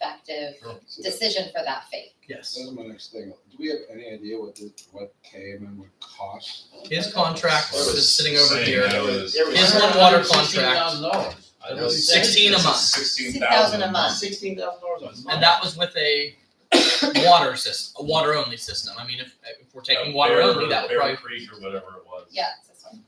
collective So that- decision for that fee. Yes. That's my next thing. Do we have any idea what the, what KMM would cost? His contract That was is sitting over insane. here. That was- that His one water contract I know was it's- sixteen a it's month. Sixteen 6,000 thousand a month. Sixteen thousand dollars a month. And that was with a water system, a water only system. I mean, if, if we're taking water only, that would probably. Creek or whatever it was. Yeah, it's this one.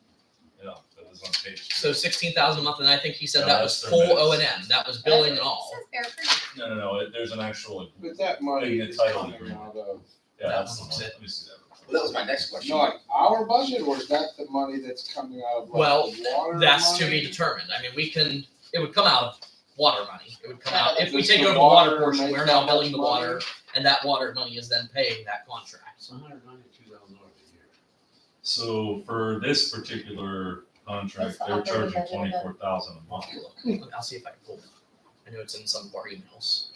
Yeah, that was on page. two. So sixteen thousand a month, and I think he said No, that that's was their full minutes. O and M. That was billing and all. It says Bear Creek. No, no, no, it- there's an actual, yeah, But that money Like the is title coming agreement. out of, That that's the one one, was it. let me see that. real quick. Well, that was my next question. not our budget, or is that the money that's coming out of like Well, the water That's to be money? determined. I mean, we can, it would come out of water money. It would come out, if we Does take the over the water water portion, make we're that now much billing the money? water, and that water money is then paying that contract. It's hundred ninety-two thousand dollars a year. So for this particular That's contract, the they're operating charging budget of it. twenty-four thousand a month. Look, I'll see if I can pull it. I know it's in some of our emails.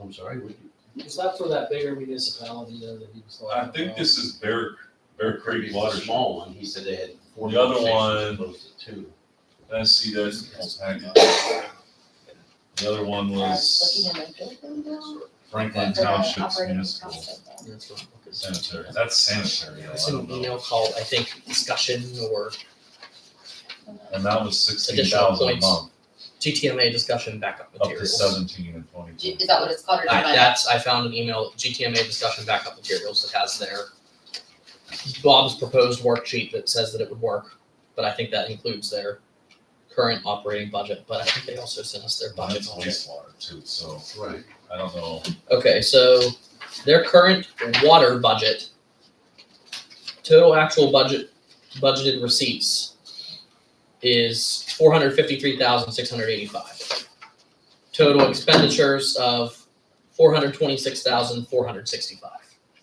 I'm sorry, what? Is that for that bigger municipality though that he was talking I about? think this is Bear, Bear Creek It's a Water. Small one, he said they had four. The other locations Opposed to two. I see that's the whole package. The other one I was was looking in the building now. Franklin For the uh, Township's operating municipal cost of that. That's what I'm looking at. sanitary, that's sanitary, I It's an don't know. email called, I think, discussion or And that was sixteen Additional thousand a points. month, GTMA discussion backup up to materials. seventeen and G- twenty. Is that what it's called or I, just my? that's, I found an email, GTMA discussion backup materials that has their Bob's proposed worksheet that says that it would work, but I think that includes their current operating budget, but I think they also sent us their budget. That's wastewater too, so Right. I don't know. Okay, so their current water budget, total actual budget, budgeted receipts is four hundred fifty-three thousand six hundred eighty-five. Total expenditures of four hundred twenty-six thousand four hundred sixty-five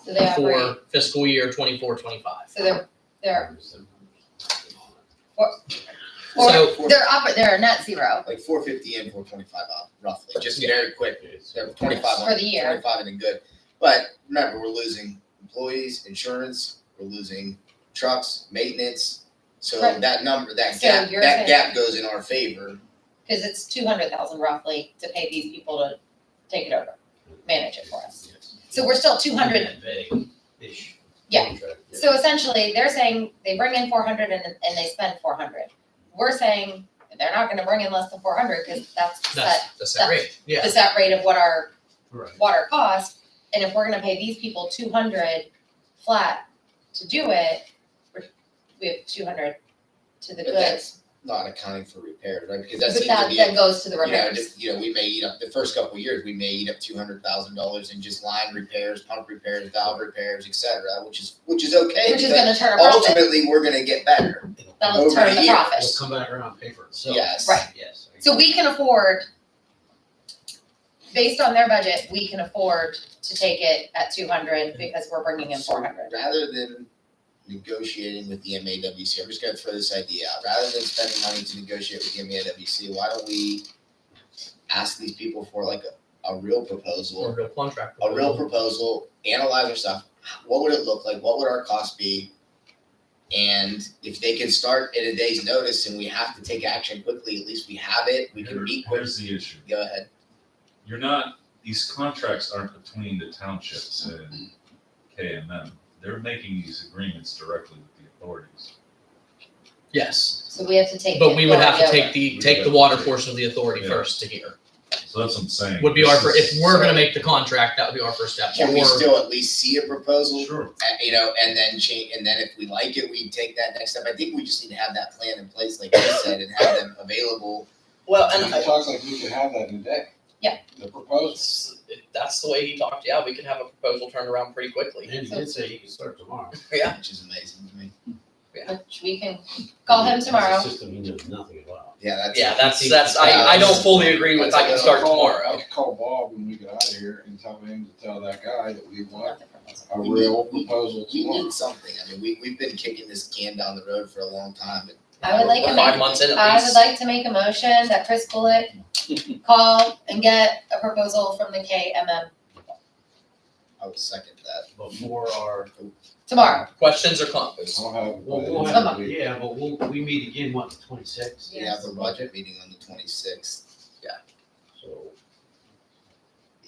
So they operate, for fiscal year twenty-four, twenty-five. so they're, they're, or So they're oper, they're net zero Like four fifty and four twenty-five off, roughly, just very quick, so twenty-five for on, the year. twenty-five and then good. But remember, we're losing employees, insurance, we're losing trucks, maintenance. So Right. that number, that So gap, you're saying- that gap goes in our favor. Cause it's two hundred thousand roughly to pay these people to take it over, manage it for us. So we're still two hundred Ish. Yeah. Contract, So essentially, they're saying they bring in four hundred and, and they spend four hundred. We're saying that they're not gonna bring in less than four hundred, cause that's the set, that's, that's that rate, yeah. the set rate of what our Right. water cost. And if we're gonna pay these people two hundred flat to do it, we're, we have two hundred to the But goods. Not accounting for repairs, right? Because that But seems to that be, then you goes to the know, repairs. just, you know, we may eat up, the first couple of years, we may eat up two hundred thousand dollars in just line repairs, pump repairs, valve repairs, et cetera, which is, which is okay. Which is but gonna turn a profit, ultimately, we're gonna get better. It'll come- that'll over turn the the year. profit. It'll come back around paper. So- Yes. Right. Yes. I So agree. we can afford, based on their budget, we can afford to take it at two hundred because we're bringing in four hundred. Rather than negotiating with the MAWC, I'm just gonna throw this idea out, rather than spending money to negotiate with the MAWC, why don't we ask these people for like a, a real Or proposal, real contract. a real proposal, analyze our stuff, what would it look like, what would our cost be? And if they can start at a day's notice and we have to take action quickly, at least we have it, we can Here- meet quick, Here's the issue, go ahead. you're not, these contracts aren't between the townships and KMM. They're making these agreements directly with the authorities. Yes, So we have to take. but we would have to authority take the, We take would the have water to take- portion of the authority Yeah. first to hear. So that's what I'm saying. would be our, This fir- if is- we're gonna make the contract, that would be our first step. Can we Or- still at least see a proposal? Sure, and, Uh, you know, and then change, and then if we like it, we take that next step. I think we just need to have that plan in place, like you said, and have them available. Well, uh, It talks like we could have that in a day. Yeah. The proposal. That's that's the way he talked, yeah, we could have a proposal turned around pretty quickly. And he did say he can start tomorrow. Yeah. Which is amazing to me. of- Which we can call him That's a tomorrow. System he knows nothing about. Yeah, that's. Yeah, that's, that's, I, I don't fully agree with I can start Call- I tomorrow. could call Bob when we get out of here and tell him to tell that guy that we want Not the proposal. a real proposal We tomorrow. need something. I mean, we, we've been kicking this can down the road for a long time. and- I would like We're to five make- months in at I would least. like to make a motion that Chris Bullock call and get a proposal from the KMM I would second that. Before our, tomorrow. Questions or comments? I'll have. it by well, the we'll end of the have, week. yeah, but we'll, we meet again, what, the twenty-sixth? We have a budget meeting on the twenty-sixth. So